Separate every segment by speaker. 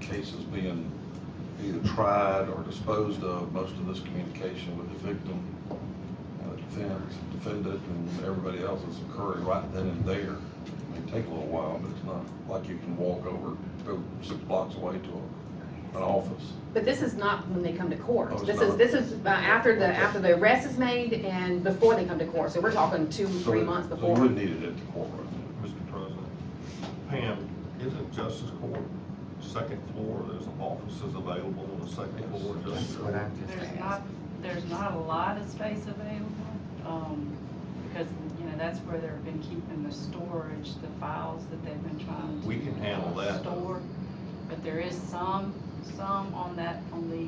Speaker 1: cases being either tried or disposed of, most of this communication with the victim, uh, defense, defendant, and everybody else is occurring right then and there. It may take a little while, but it's not like you can walk over, go six blocks away to a- an office.
Speaker 2: But this is not when they come to
Speaker 1: Oh, it's
Speaker 2: court. This
Speaker 1: not?
Speaker 2: is, this is uh, after the,
Speaker 1: Okay.
Speaker 2: after the arrest is made and before they come to court. So we're talking two,
Speaker 1: So
Speaker 2: three
Speaker 1: it-
Speaker 2: months
Speaker 1: So you
Speaker 2: before.
Speaker 1: would need it at the courtroom.
Speaker 3: Mr. President, Pam, isn't Justice Court second floor, there's offices available on the second floor?
Speaker 4: That's
Speaker 3: just-
Speaker 4: what I'm just
Speaker 5: There's not,
Speaker 4: asking.
Speaker 5: there's not a lot of space available, um, because, you know, that's where they've been keeping the storage, the files that they've been trying to.
Speaker 3: We can handle
Speaker 5: uh,
Speaker 3: that.
Speaker 5: Store, but there is some, some on that, on the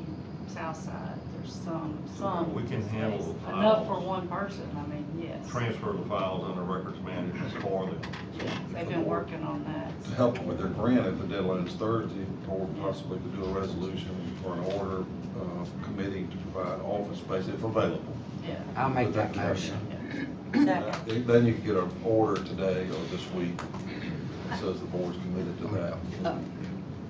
Speaker 5: south side, there's some, some.
Speaker 3: We can handle
Speaker 5: space.
Speaker 3: the
Speaker 5: Enough for
Speaker 3: files.
Speaker 5: one person, I mean, yes.
Speaker 3: Transfer the files under records management for them.
Speaker 5: Yes, They've been working on
Speaker 1: to
Speaker 5: that.
Speaker 1: help them with their grant if the deadline is Thursday, or possibly to do a resolution or an order uh, committing to provide office space if available.
Speaker 5: Yeah.
Speaker 4: I'll make that motion.
Speaker 1: Uh, Then you can get an order today or this week that says the board's committed to that.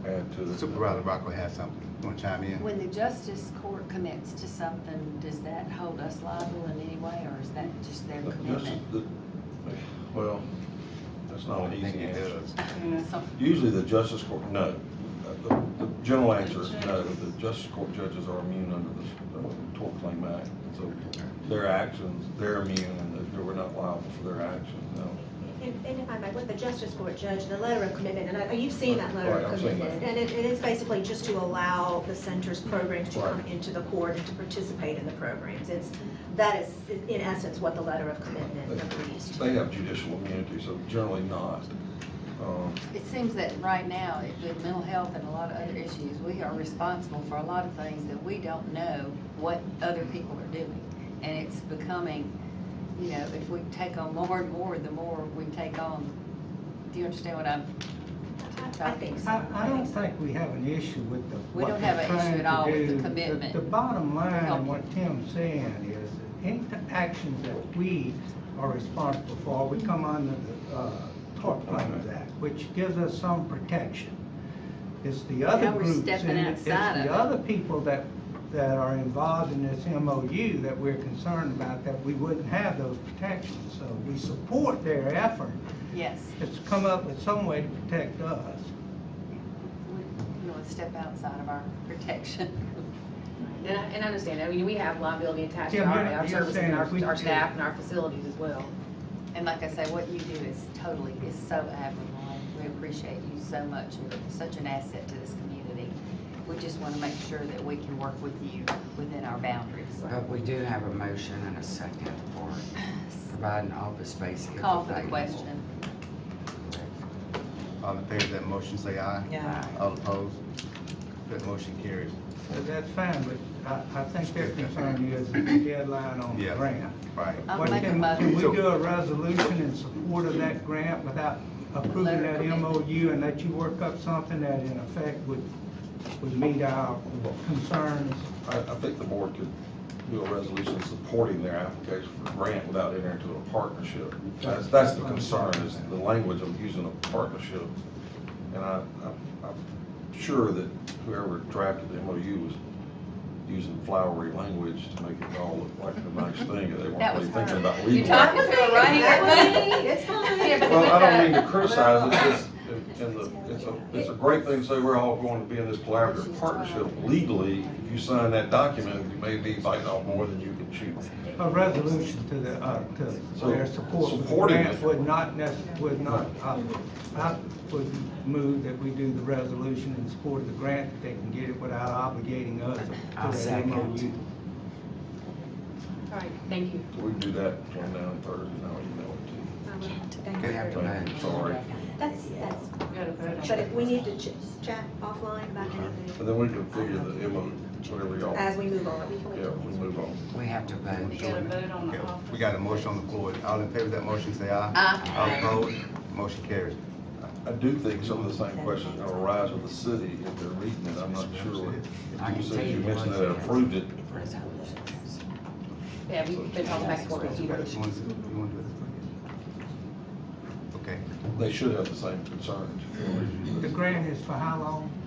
Speaker 1: Add to the-
Speaker 4: Supervisor Rocco has something, wanna chime in?
Speaker 6: When the justice court commits to something, does that hold us liable in any way, or is that just their
Speaker 1: the
Speaker 6: commitment?
Speaker 1: justice- the- Well, that's not an
Speaker 4: I think
Speaker 1: easy
Speaker 4: it
Speaker 1: answer.
Speaker 4: does.
Speaker 5: Yeah.
Speaker 1: Usually the justice court, no. Uh, The the general answer is no. The justice court judges are immune under the uh, tort claim act. So their actions, they're immune and that- that we're not liable for their actions, no.
Speaker 7: And, and if I might, with the justice court judge, the letter of commitment, and I, you've seen that letter
Speaker 1: Right, I've
Speaker 7: of
Speaker 1: seen that.
Speaker 7: commitment. And it, it is basically just to allow the center's programs to come
Speaker 1: Right.
Speaker 7: into the court and to participate in the programs. It's, that is in essence what the letter of commitment agrees to.
Speaker 1: They have judicial immunity, so generally not. Um,
Speaker 6: It seems that right now, it- with mental health and a lot of other issues, we are responsible for a lot of things that we don't know what other people are doing. And it's becoming, you know, if we take on more and more, the more we take on, do you understand what I'm
Speaker 7: I think so.
Speaker 8: I, I don't think we have an issue with the.
Speaker 6: We
Speaker 8: what
Speaker 6: don't have
Speaker 8: they're
Speaker 6: an issue
Speaker 8: trying
Speaker 6: at
Speaker 8: to
Speaker 6: all with the
Speaker 8: do.
Speaker 6: commitment.
Speaker 8: The bottom line,
Speaker 6: Help.
Speaker 8: and what Tim's saying is, that any t- actions that we are responsible for, we come under the, uh, Tort Claims Act, which gives us some protection. It's the other
Speaker 6: Now we're
Speaker 8: groups,
Speaker 6: stepping
Speaker 8: and it's
Speaker 6: outside of it.
Speaker 8: the other people that, that are involved in this MOU that we're concerned about, that we wouldn't have those protections. So we support their effort,
Speaker 6: Yes,
Speaker 8: it's to come up with some way to protect us.
Speaker 6: we, you know, step outside of our protection.
Speaker 2: And I, and I understand, I mean, we have liability attached to
Speaker 8: Tim,
Speaker 2: our,
Speaker 8: you're-
Speaker 2: our
Speaker 8: you're
Speaker 2: services and
Speaker 8: saying if
Speaker 2: our,
Speaker 8: we
Speaker 2: our
Speaker 8: do-
Speaker 2: staff and our facilities as well.
Speaker 6: And like I say, what you do is totally, is so admirable. We appreciate you so much. You're such an asset to this community. We just want to make sure that we can work with you within our boundaries.
Speaker 4: But we do have a motion and a second for providing office space. if
Speaker 6: Call for the
Speaker 4: available.
Speaker 6: question.
Speaker 9: All in favor of that motion, say aye.
Speaker 6: Yeah.
Speaker 9: All opposed? That motion carries.
Speaker 8: Uh, That's fine, but I, I think their concern is the deadline on the
Speaker 9: Yeah.
Speaker 8: grant.
Speaker 9: Right.
Speaker 6: I'll
Speaker 8: What
Speaker 6: make a
Speaker 8: can-
Speaker 6: motion.
Speaker 8: Can we do a resolution in support of that grant without approving
Speaker 6: Letter
Speaker 8: that
Speaker 6: of commitment.
Speaker 8: MOU and let you work up something that in effect would, would meet our concerns?
Speaker 1: I, I think the board could do a resolution supporting their application for grant without entering into a partnership. That's, that's the concern, is the language of using a partnership. And I, I- I'm sure that whoever drafted the MOU was using flowery language to make it all look like a nice thing, and they
Speaker 6: That
Speaker 1: weren't
Speaker 6: was
Speaker 1: really
Speaker 6: her.
Speaker 1: thinking about
Speaker 6: You're
Speaker 1: legal.
Speaker 6: talking to her, right?
Speaker 2: It's fine. Yeah, but
Speaker 1: Well, I don't mean
Speaker 2: with
Speaker 1: to criticize, it's just, and the, it's a, it's a great thing, to say we're all going to be in this collaborative partnership legally. If you sign that document, you may be biting off more than you can chew.
Speaker 8: A resolution to the, uh, to
Speaker 1: So,
Speaker 8: their support for the
Speaker 1: supporting
Speaker 8: grant
Speaker 1: it.
Speaker 8: would not necess, would not, uh, I would move that we do the resolution in support of the grant, that they can get it without obligating us
Speaker 4: I'll
Speaker 8: to that
Speaker 4: second.
Speaker 8: MOU.
Speaker 2: the- All right, thank you.
Speaker 1: We can do that between now and Thursday, and I'll email it to you.
Speaker 4: We have to
Speaker 1: Thank you,
Speaker 4: vote.
Speaker 1: sorry.
Speaker 7: That's, that's,
Speaker 5: We gotta vote on
Speaker 7: but if
Speaker 5: it.
Speaker 7: we need to ch- chat offline about anything,
Speaker 1: And then we can figure the MO, whatever y'all, yeah,
Speaker 7: as we move on, we
Speaker 1: we
Speaker 7: can.
Speaker 1: move on.
Speaker 4: We have to vote.
Speaker 5: We gotta vote on
Speaker 9: Okay,
Speaker 5: the office.
Speaker 9: We got a motion on the floor. All in favor of that motion, say aye.
Speaker 6: Aye.
Speaker 9: All opposed? Motion carries.
Speaker 1: I do think some of the same questions are gonna arise with the city if they're reading it, I'm not sure.
Speaker 4: I can
Speaker 1: You
Speaker 4: tell
Speaker 1: said you
Speaker 4: you
Speaker 1: mentioned
Speaker 4: what-
Speaker 1: that I approved it,
Speaker 2: Yeah, we've been talking back and forth with
Speaker 9: You
Speaker 2: you.
Speaker 9: wanna- you wanna do it? Okay.
Speaker 1: they should have the same concerns.
Speaker 8: The grant is for how long?